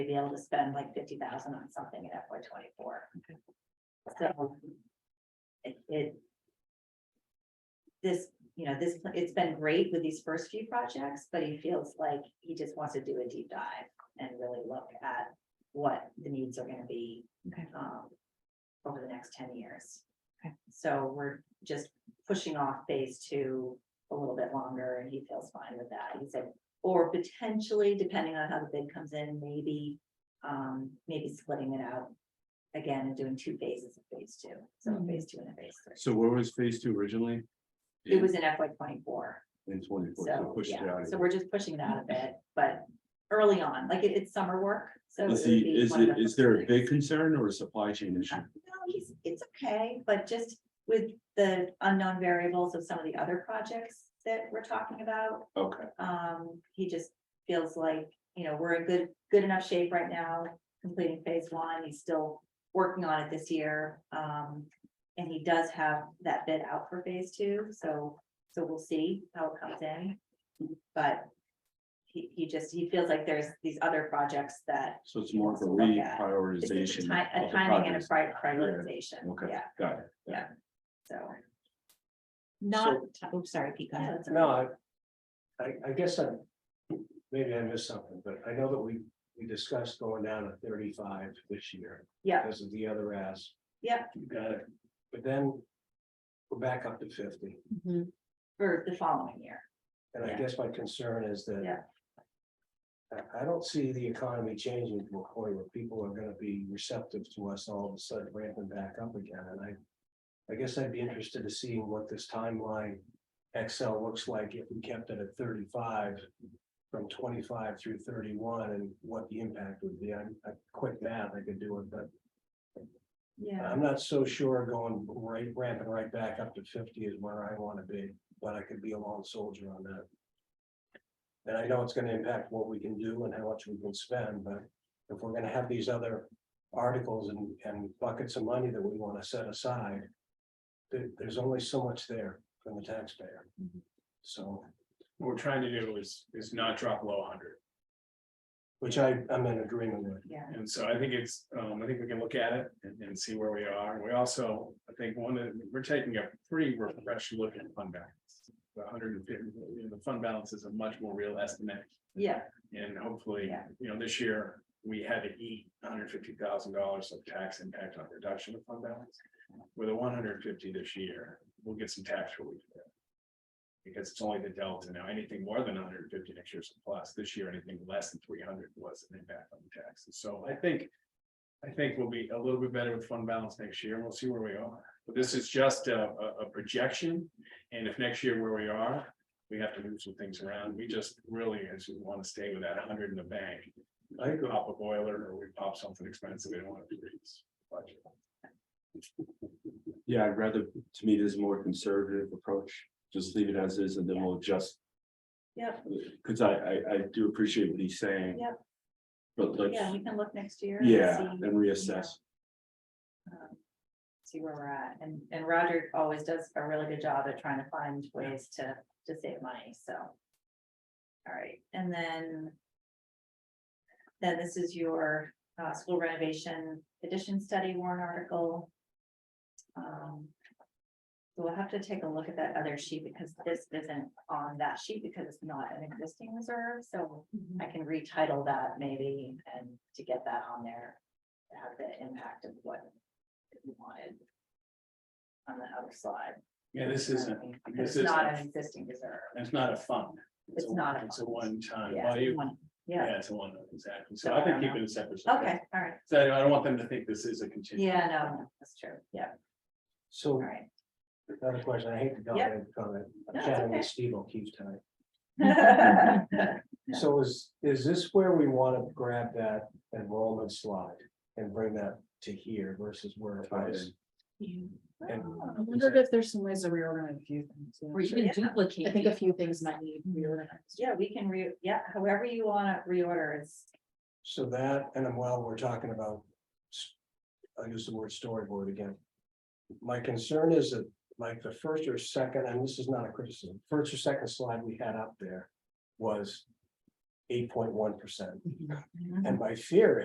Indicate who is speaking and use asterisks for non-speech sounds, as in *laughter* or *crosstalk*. Speaker 1: to be able to spend like fifty thousand on something in FY twenty-four. So. It, it. This, you know, this, it's been great with these first few projects, but he feels like he just wants to do a deep dive and really look at what the needs are gonna be.
Speaker 2: Okay.
Speaker 1: um, Over the next ten years.
Speaker 2: Okay.
Speaker 1: So we're just pushing off phase two a little bit longer and he feels fine with that. He said, or potentially, depending on how the bid comes in, maybe, um, maybe splitting it out. Again, and doing two phases of phase two, so
Speaker 2: Mm-hmm.
Speaker 1: a phase two and a phase three.
Speaker 3: So where was phase two originally?
Speaker 1: It was in FY twenty-four.
Speaker 3: In twenty-four, so
Speaker 1: So,
Speaker 3: pushed it
Speaker 1: yeah,
Speaker 3: out.
Speaker 1: so we're just pushing that a bit, but early on, like it- it's summer work, so.
Speaker 3: Is
Speaker 1: it would
Speaker 3: the,
Speaker 1: be
Speaker 3: is
Speaker 1: one of
Speaker 3: it,
Speaker 1: the
Speaker 3: is
Speaker 1: first
Speaker 3: there a
Speaker 1: things.
Speaker 3: big concern or a supply chain issue?
Speaker 1: No, he's, it's okay, but just with the unknown variables of some of the other projects that we're talking about,
Speaker 3: Okay,
Speaker 1: um, he just feels like, you know, we're in good, good enough shape right now, completing phase one, he's still working on it this year. Um, and he does have that bid out for phase two, so, so we'll see how it comes in. But he, he just, he feels like there's these other projects that,
Speaker 3: so it's more for
Speaker 1: Look at- it's just
Speaker 3: reprioritization.
Speaker 1: a ti- a
Speaker 3: of the
Speaker 1: timing and a
Speaker 3: projects.
Speaker 1: pri- prioritization,
Speaker 3: Okay,
Speaker 1: yeah,
Speaker 3: got it.
Speaker 1: so.
Speaker 2: Not, oh, sorry, Pete, go ahead.
Speaker 4: Uh,
Speaker 5: No, I, I, I guess I, maybe I missed something, but I know that we, we discussed going down to thirty-five this year
Speaker 1: Yeah,
Speaker 5: because of the other ass.
Speaker 1: yeah,
Speaker 5: You got it. But then we're back up to fifty.
Speaker 2: Mhm.
Speaker 1: for the following year,
Speaker 5: And I
Speaker 1: Yeah.
Speaker 5: guess my concern is that
Speaker 1: Yeah.
Speaker 5: I, I don't see the economy changing to a point where people are gonna be receptive to us all of a sudden ramping back up again. And I, I guess I'd be interested to see what this timeline Excel looks like if we kept it at thirty-five from twenty-five through thirty-one and what the impact would be. I'm, I quit math, I could do it, but
Speaker 1: yeah,
Speaker 5: I'm not so sure going right, ramping right back up to fifty is where I wanna be, but I could be a lone soldier on that. And I know it's gonna impact what we can do and how much we can spend, but if we're gonna have these other articles and, and buckets of money that we wanna set aside. There, there's only so much there from the taxpayer.
Speaker 2: Mhm.
Speaker 5: So,
Speaker 6: what we're trying to do is, is not drop below hundred.
Speaker 5: which I, I'm in agreement with.
Speaker 1: yeah.
Speaker 6: And so I think it's, um, I think we can look at it and, and see where we are. And We also, I think one of, we're taking a pretty refreshed look at fund balance. The hundred and fifty, you know, the fund balance is a much more real estimate
Speaker 1: Yeah,
Speaker 6: and hopefully,
Speaker 1: Yeah.
Speaker 6: you know, this year. We had to eat hundred fifty thousand dollars of tax impact on reduction of fund balance. With a one hundred fifty this year, we'll get some tax relief there. Because it's only the delta now, anything more than hundred fifty next year's a plus, this year, anything less than three hundred was an impact on the taxes, so I think. I think we'll be a little bit better with fund balance next year, and we'll see where we are, but this is just a, a, a projection. And if next year where we are, we have to move some things around, we just really, as we wanna stay with that hundred in the bank. I could pop a boiler, or we pop something expensive, we don't wanna increase budget.
Speaker 3: Yeah, I'd rather, to me, this is a more conservative approach, just leave it as is and then we'll adjust.
Speaker 1: Yep.
Speaker 3: Cause I, I, I do appreciate what he's saying.
Speaker 1: Yep.
Speaker 3: But let's,
Speaker 1: yeah, we can look next year. and
Speaker 3: yeah,
Speaker 1: see,
Speaker 3: and reassess.
Speaker 1: um, See where we're at, and, and Roger always does a really good job at trying to find ways to, to save money, so. All right, and then. Then this is your, uh, school renovation addition study warrant article. Um, So we'll have to take a look at that other sheet because this isn't on that sheet because it's not an existing reserve, so I can retitle that maybe and to get that on there. to Have the impact of what we wanted. On the other slide.
Speaker 6: Yeah, this isn't,
Speaker 1: Because
Speaker 6: this
Speaker 1: it's not
Speaker 6: isn't-
Speaker 1: an existing reserve.
Speaker 6: it's not a fund.
Speaker 1: It's not a
Speaker 6: It's a
Speaker 1: fund.
Speaker 6: one-time,
Speaker 1: Yeah,
Speaker 6: well, you,
Speaker 1: one- Yeah,
Speaker 6: yeah, it's a one, exactly,
Speaker 1: So
Speaker 6: so
Speaker 1: I
Speaker 6: I think
Speaker 1: don't
Speaker 6: keep
Speaker 1: know.
Speaker 6: it a separate.
Speaker 1: okay, all right.
Speaker 6: So I don't want them to think this is a continuation.
Speaker 1: Yeah, no, no, that's true. Yeah, all
Speaker 5: So
Speaker 1: right. *laughs*
Speaker 5: another question, I hate to dominate the comment,
Speaker 1: No,
Speaker 5: I'm
Speaker 1: it's
Speaker 5: chatting
Speaker 1: okay.
Speaker 5: with Steve O'Keefe tonight. So is, is this where we want to grab that enrollment slide and bring that to here versus where it
Speaker 3: Tie it
Speaker 5: was?
Speaker 4: mm-hmm.
Speaker 5: And
Speaker 2: I wondered if there's some ways to reorganize a few things. yeah. Mm-hmm.
Speaker 4: Or even
Speaker 1: Yeah.
Speaker 4: duplicate.
Speaker 2: I think a few things might need reorganized.
Speaker 1: Yeah, we can re, yeah, however you want to reorder is,
Speaker 5: so that, and then while we're talking about. s- I'll use the word storyboard again. My concern is that like the first or second, and this is not a criticism, first or second slide we had up there was.
Speaker 1: eight point one percent.
Speaker 5: Mhm.
Speaker 2: Mm-hmm.
Speaker 5: Mm-hmm.
Speaker 1: And my fear